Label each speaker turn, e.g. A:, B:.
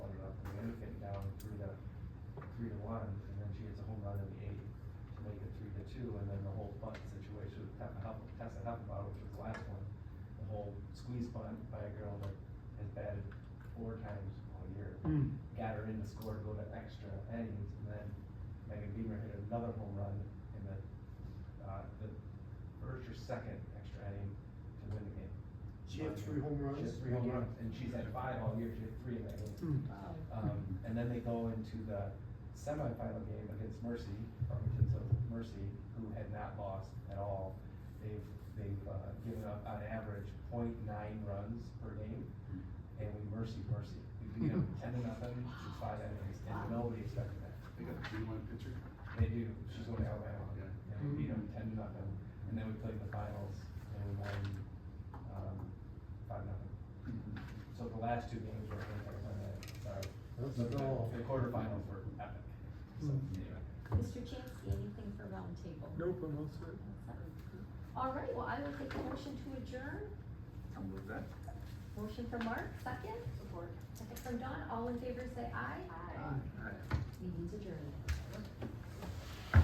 A: three to one, and then she hits a home run in the eighth to make it three to two, and then the whole bunt situation with Tessa Huff, Tessa Huffenbauer, which was the last one, the whole squeeze bunt by a girl that has batted four times all year,
B: Mm.
A: got her in to score to go to extra innings, and then Megan Beamer hit another home run in the, uh, the first or second extra inning to win the game.
C: She had three home
A: She
C: runs. Hmm.
A: has three home runs, and she's had five all year, she had three in that game.
B: Mm.
A: Um, and then they go into the semifinal game against Mercy, Farmington of Mercy, who had not lost at all. They've, they've, uh, given up on average 0.9 runs per game, and we mercy, mercy. We beat them ten to nothing, through five innings, and nobody expected that.
D: They got a three one pitcher.
A: They do, she's going to Alabama,
D: Yeah.
A: and we beat them ten to nothing, and then we played the finals, and we won, um, five nothing. So the last two games were epic, and then, sorry.
C: Let's
A: The- the-
C: go.
A: The quarterfinals were epic. So,
B: Mm.
A: anyway.
E: Mr. Chansky, anything for roundtable?
B: Nope, I'm all set.
E: All right, well, I will take a motion to adjourn.
D: I'll move that.
E: Motion for Mark, second? Support. Second from Don, all in favor say aye.
D: Aye.
E: Meeting's adjourned.